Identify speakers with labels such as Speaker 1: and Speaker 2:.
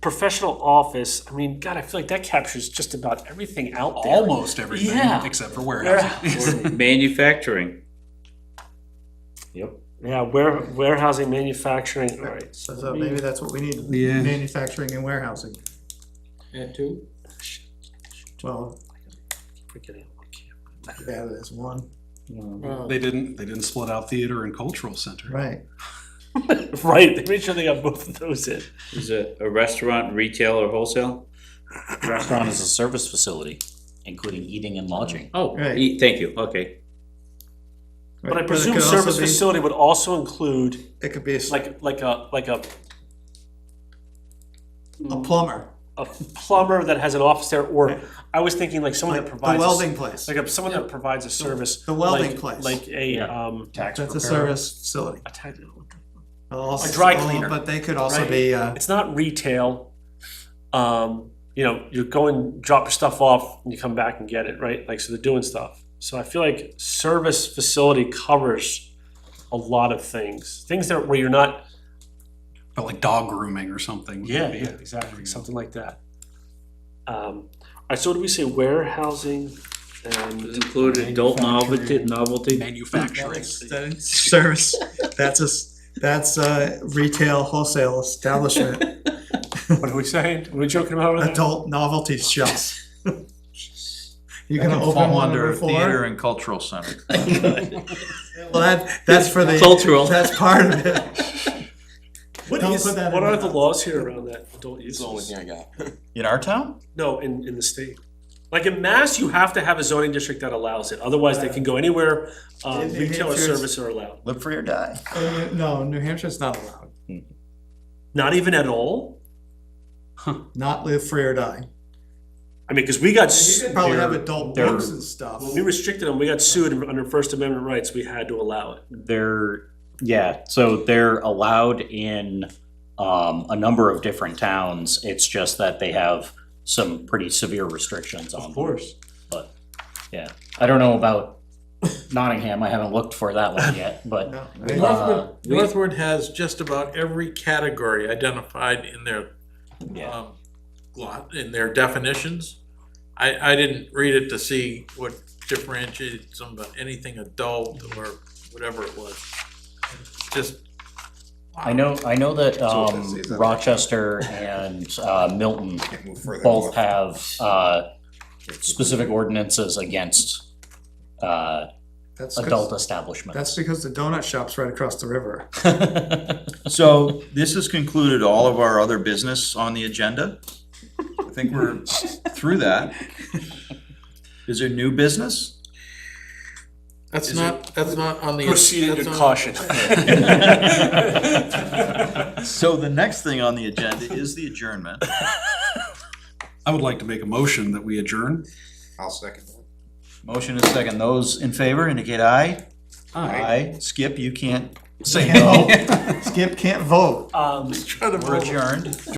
Speaker 1: professional office, I mean, God, I feel like that captures just about everything out there.
Speaker 2: almost everything
Speaker 1: Yeah.
Speaker 2: except for warehousing.
Speaker 3: Manufacturing. Yep.
Speaker 1: Yeah, ware, warehousing, manufacturing, all right.
Speaker 4: So so maybe that's what we need,
Speaker 2: Yeah.
Speaker 4: manufacturing and warehousing.
Speaker 5: And two,
Speaker 4: Well,
Speaker 1: Freaking out, I can't-
Speaker 4: yeah, there's one,
Speaker 5: uh,
Speaker 2: They didn't, they didn't split out theater and cultural center.
Speaker 4: right.
Speaker 1: Right, they made sure they got both of those in.
Speaker 3: Is it a restaurant, retail, or wholesale?
Speaker 6: Restaurant is a service facility, including eating and lodging.
Speaker 3: Oh,
Speaker 4: Right.
Speaker 3: e- thank you, okay.
Speaker 4: Right,
Speaker 1: But I
Speaker 4: it
Speaker 1: presume
Speaker 4: could also
Speaker 1: service
Speaker 4: be-
Speaker 1: facility would also include
Speaker 4: It could be a s- a
Speaker 1: like, like a, like a,
Speaker 4: plumber,
Speaker 1: a plumber that has an office there, or I was thinking like someone
Speaker 4: like
Speaker 1: that
Speaker 4: the
Speaker 1: provides. a s-
Speaker 4: welding place.
Speaker 1: Like a- someone that provides a service.
Speaker 4: The welding
Speaker 1: like-
Speaker 4: place.
Speaker 1: Like a, um.
Speaker 6: Tax
Speaker 4: That's a
Speaker 6: preparer.
Speaker 4: service facility.
Speaker 1: a tax-
Speaker 4: A
Speaker 1: dry cleaner.
Speaker 4: But they could also
Speaker 1: Right.
Speaker 4: be, uh,
Speaker 1: It's not retail. Um, you know, you go and drop your stuff off and you come back and get it, right? Like, so they're doing stuff. So I feel like service facility covers a lot of things, things that where you're not.
Speaker 2: But like dog grooming or something. would be it.
Speaker 1: exactly. Something like that. Um, all right, so what do we say? Warehousing and
Speaker 3: Does include adult novelty,
Speaker 2: Manufacturing.
Speaker 3: novelty?
Speaker 2: Manufacturing.
Speaker 4: that is service, that's a, s- that's a retail wholesale establishment,
Speaker 1: what are we saying? What are we joking about? over there?
Speaker 4: adult novelty shops. You're gonna open one or
Speaker 7: Theater
Speaker 4: four?
Speaker 7: and cultural center.
Speaker 4: Well, that, that's for the.
Speaker 3: Cultural.
Speaker 4: That's part of it.
Speaker 1: What
Speaker 4: Don't
Speaker 1: is-
Speaker 4: put that
Speaker 1: what
Speaker 4: in
Speaker 1: are
Speaker 4: the-
Speaker 1: the laws here around that adult use?
Speaker 5: I got.
Speaker 7: In our town?
Speaker 1: No, in, in the state. Like in Mass, you have to have a zoning district that allows it, otherwise they can go anywhere, uh,
Speaker 4: In New
Speaker 1: retail or
Speaker 4: Hampshire, it's-
Speaker 1: service are allowed.
Speaker 7: Live free or die.
Speaker 4: Uh, No, New Hampshire's not allowed,
Speaker 1: Not even at all?
Speaker 4: not live free or die.
Speaker 1: I mean, because we got,
Speaker 4: You
Speaker 1: s-
Speaker 4: could probably have adult
Speaker 7: they're-
Speaker 4: books and stuff.
Speaker 1: when we restricted them, we got sued under First Amendment rights, we had to allow it.
Speaker 6: They're, yeah, so they're allowed in um, a number of different towns. It's just that they have some pretty severe restrictions on them.
Speaker 1: course.
Speaker 6: Yeah, I don't know about Nottingham. I haven't looked for that one yet, but
Speaker 4: No, I mean,
Speaker 6: uh,
Speaker 5: Northwood, Northwood has just about every category identified in their,
Speaker 6: yeah.
Speaker 5: um, lot, in their definitions. I, I didn't read it to see what differentiated some, but anything adult or whatever it was. Just.
Speaker 6: I know, I know that
Speaker 7: all
Speaker 6: um,
Speaker 7: disease, I think.
Speaker 6: Rochester and uh, Milton
Speaker 7: Can't move further
Speaker 6: both have uh, specific ordinances against uh,
Speaker 4: that's 'cause-
Speaker 6: adult establishments.
Speaker 4: That's because the donut shop's right across the river.
Speaker 7: So this has concluded all of our other business on the agenda. I think we're through that. Is there new business?
Speaker 5: That's not, that's not on the.
Speaker 1: Proceeded
Speaker 5: that's
Speaker 1: with
Speaker 5: not-
Speaker 1: caution.
Speaker 7: So the next thing on the agenda is the adjournment.
Speaker 2: I would like to make a motion that we adjourn.
Speaker 8: I'll second that.
Speaker 7: Motion is second. Those in favor indicate aye. Aye. Skip, you can't say no.
Speaker 4: Skip can't vote.
Speaker 1: Um,
Speaker 7: We're adjourned.